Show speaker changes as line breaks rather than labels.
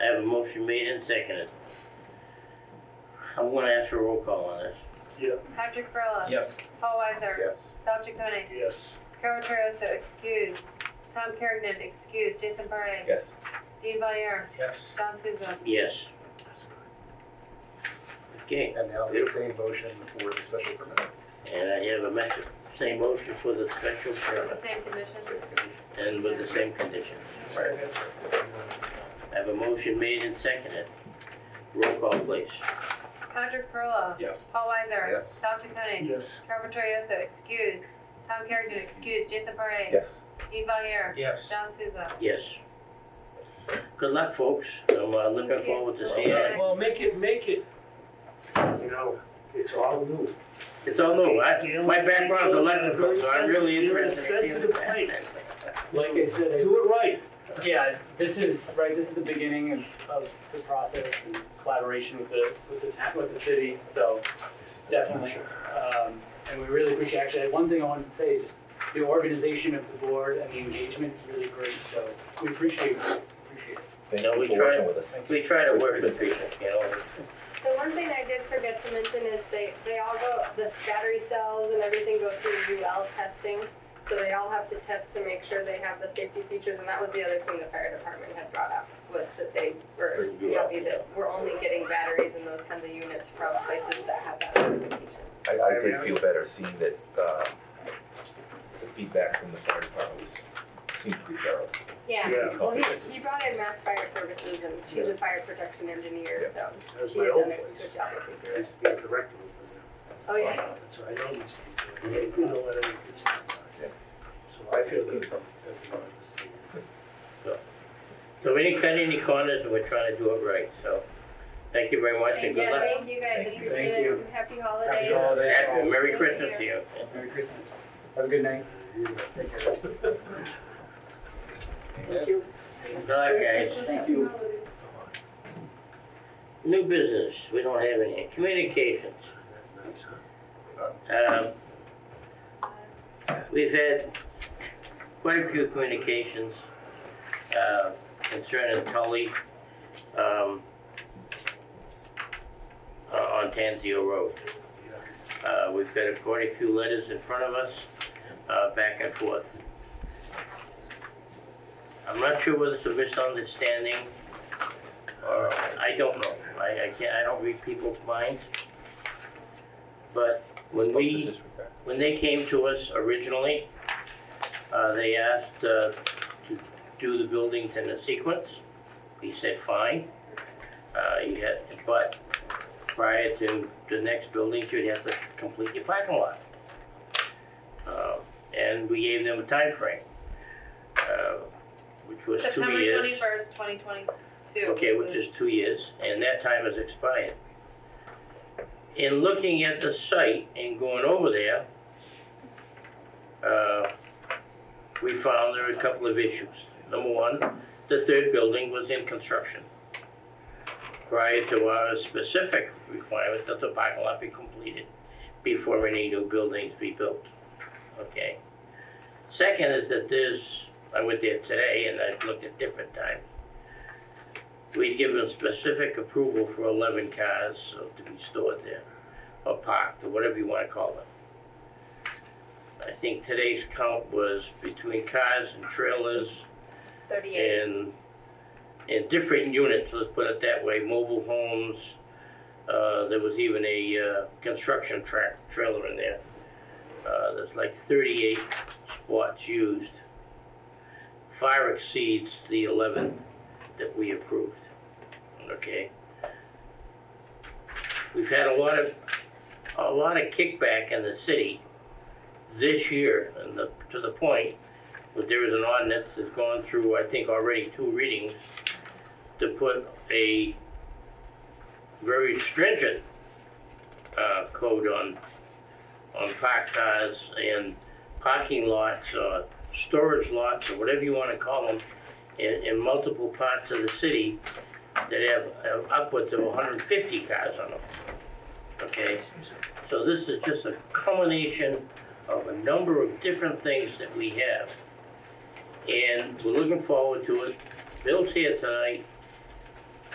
Motion made and seconded. I'm gonna ask for a roll call on this.
Yeah.
Patrick Perla.
Yes.
Paul Weiser.
Yes.
Sal Chaconi.
Yes.
Carol Torioso, excused. Tom Kergnen, excused. Jason Parra.
Yes.
Dean Valier.
Yes.
Don Souza.
Yes. Okay,
And now the same motion for the special permit.
and I have a message, same motion for the special
The
permit
same conditions.
and with the same conditions. I have a motion made and seconded. Roll call please.
Patrick Perla.
Yes.
Paul Weiser.
Yes.
Sal Chaconi.
Yes.
Carol Torioso, excused. Tom Kergnen, excused. Jason Parra.
Yes.
Dean Valier.
Yes.
Don Souza.
Yes. Good luck, folks. I'm uh, looking forward to seeing it.
Well, make it, make it, you know, it's all new.
It's all new. I, my background's electrical, so I'm really
You're in a
interested in seeing
sensitive
that.
place.
Like I said, I-
Do it right.
yeah, this is, right, this is the beginning of, of the process and collaboration with the, with the, ta- with the city, so definitely. Um, and we really appreciate, actually, one thing I wanted to say is just the organization of the board and the engagement is really great, so we appreciate, it. appreciate it.
Thank
No, we
you for
tried.
working with us.
We try to work with people, you know.
The one thing I did forget to mention is they, they all go, the battery cells and everything go through UL testing. So they all have to test to make sure they have the safety features, and that was the other thing the fire department had brought up, was that they were
For UL,
happy that we're only getting batteries and those kinds of units from places that have that certification.
I, I did feel better seeing that, uh, the feedback from the fire department was, seemed pretty thorough.
Yeah.
Yeah, well, he, he brought in Mass Fire Services, and she's a fire protection engineer, so
That's
she
my
had
old
done a
place.
good job of
I
figuring.
used to be a director over
Oh,
there.
yeah,
That's why I know these people. They do know what it is.
Yeah.
So I feel good about everyone this thing.
So we didn't cut any corners, and we're trying to do it right, so thank you very much and good
yeah,
luck.
thank you guys,
Thank you.
appreciate
Thank you.
it, happy holidays.
Happy holidays.
Happy- Merry Christmas to you.
Merry Christmas. Have a good night. Take care.
Good luck, guys.
Thank you.
New business, we don't have any. Communications.
Nice, huh?
Um, We've had quite a few communications uh, concerning Tully um, uh, on Tanzio Road. Uh, We've got quite a few letters in front of us, uh, back and forth. I'm not sure whether it's a misunderstanding, or, I don't know. I I can't, I don't read people's minds. But when we when they came to us originally, uh, they asked uh, to do the buildings in a sequence. We said, fine. Uh, you had, but prior to the next buildings, you'd have to complete your parking lot. Uh, and we gave them a time frame, uh, which was two
September
years.
twenty-first, twenty twenty-two.
Okay, which is two years, and that time has expired. In looking at the site and going over there, uh, we found there are a couple of issues. Number one, the third building was in construction. Prior to our specific requirement that the parking lot be completed before any new buildings be built, okay? Second is that there's, I went there today and I looked at different times we give them specific approval for eleven cars uh, to be stored there, or parked, or whatever you wanna call it. I think today's count was between cars and trailers
Thirty-eight.
and, and different units, let's put it that way, mobile homes. Uh, there was even a, uh, construction track, trailer in there. Uh, there's like thirty-eight spots used. Far exceeds the eleven that we approved, okay? We've had a lot of, a lot of kickback in the city this year, and the, to the point but there is an ordinance that's gone through, I think, already two readings to put a very stringent, uh, code on, on parked cars and parking lots, or storage lots, or whatever you wanna call them, in, in multiple parts of the city that have have upwards of hundred and fifty cars on them. Okay, so this is just a culmination of a number of different things that we have. And we're looking forward to it. Bill's here tonight.